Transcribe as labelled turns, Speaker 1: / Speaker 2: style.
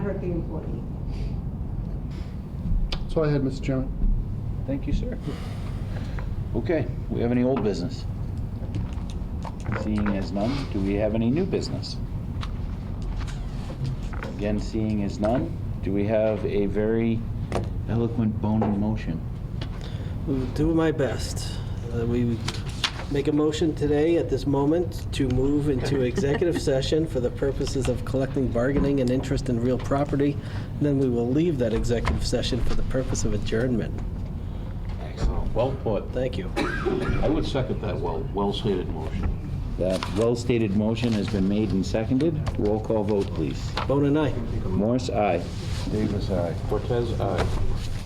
Speaker 1: working employee.
Speaker 2: That's all I had, Mr. Chairman.
Speaker 3: Thank you, sir. Okay, we have any old business? Seeing as none, do we have any new business? Again, seeing as none, do we have a very eloquent bone in motion?
Speaker 4: Will Do my best. Uh, We make a motion today at this moment to move into executive session for the purposes of collecting bargaining and interest in real property. Then we will leave that executive session for the purpose of adjournment.
Speaker 3: Excellent.
Speaker 5: Well put.
Speaker 4: Thank you.
Speaker 5: I would second that well, well-stated motion.
Speaker 3: That well-stated motion has been made and seconded. Roll call vote, please.
Speaker 4: Bone and I.
Speaker 3: Morse, aye. Davis, aye.
Speaker 5: Cortez, aye.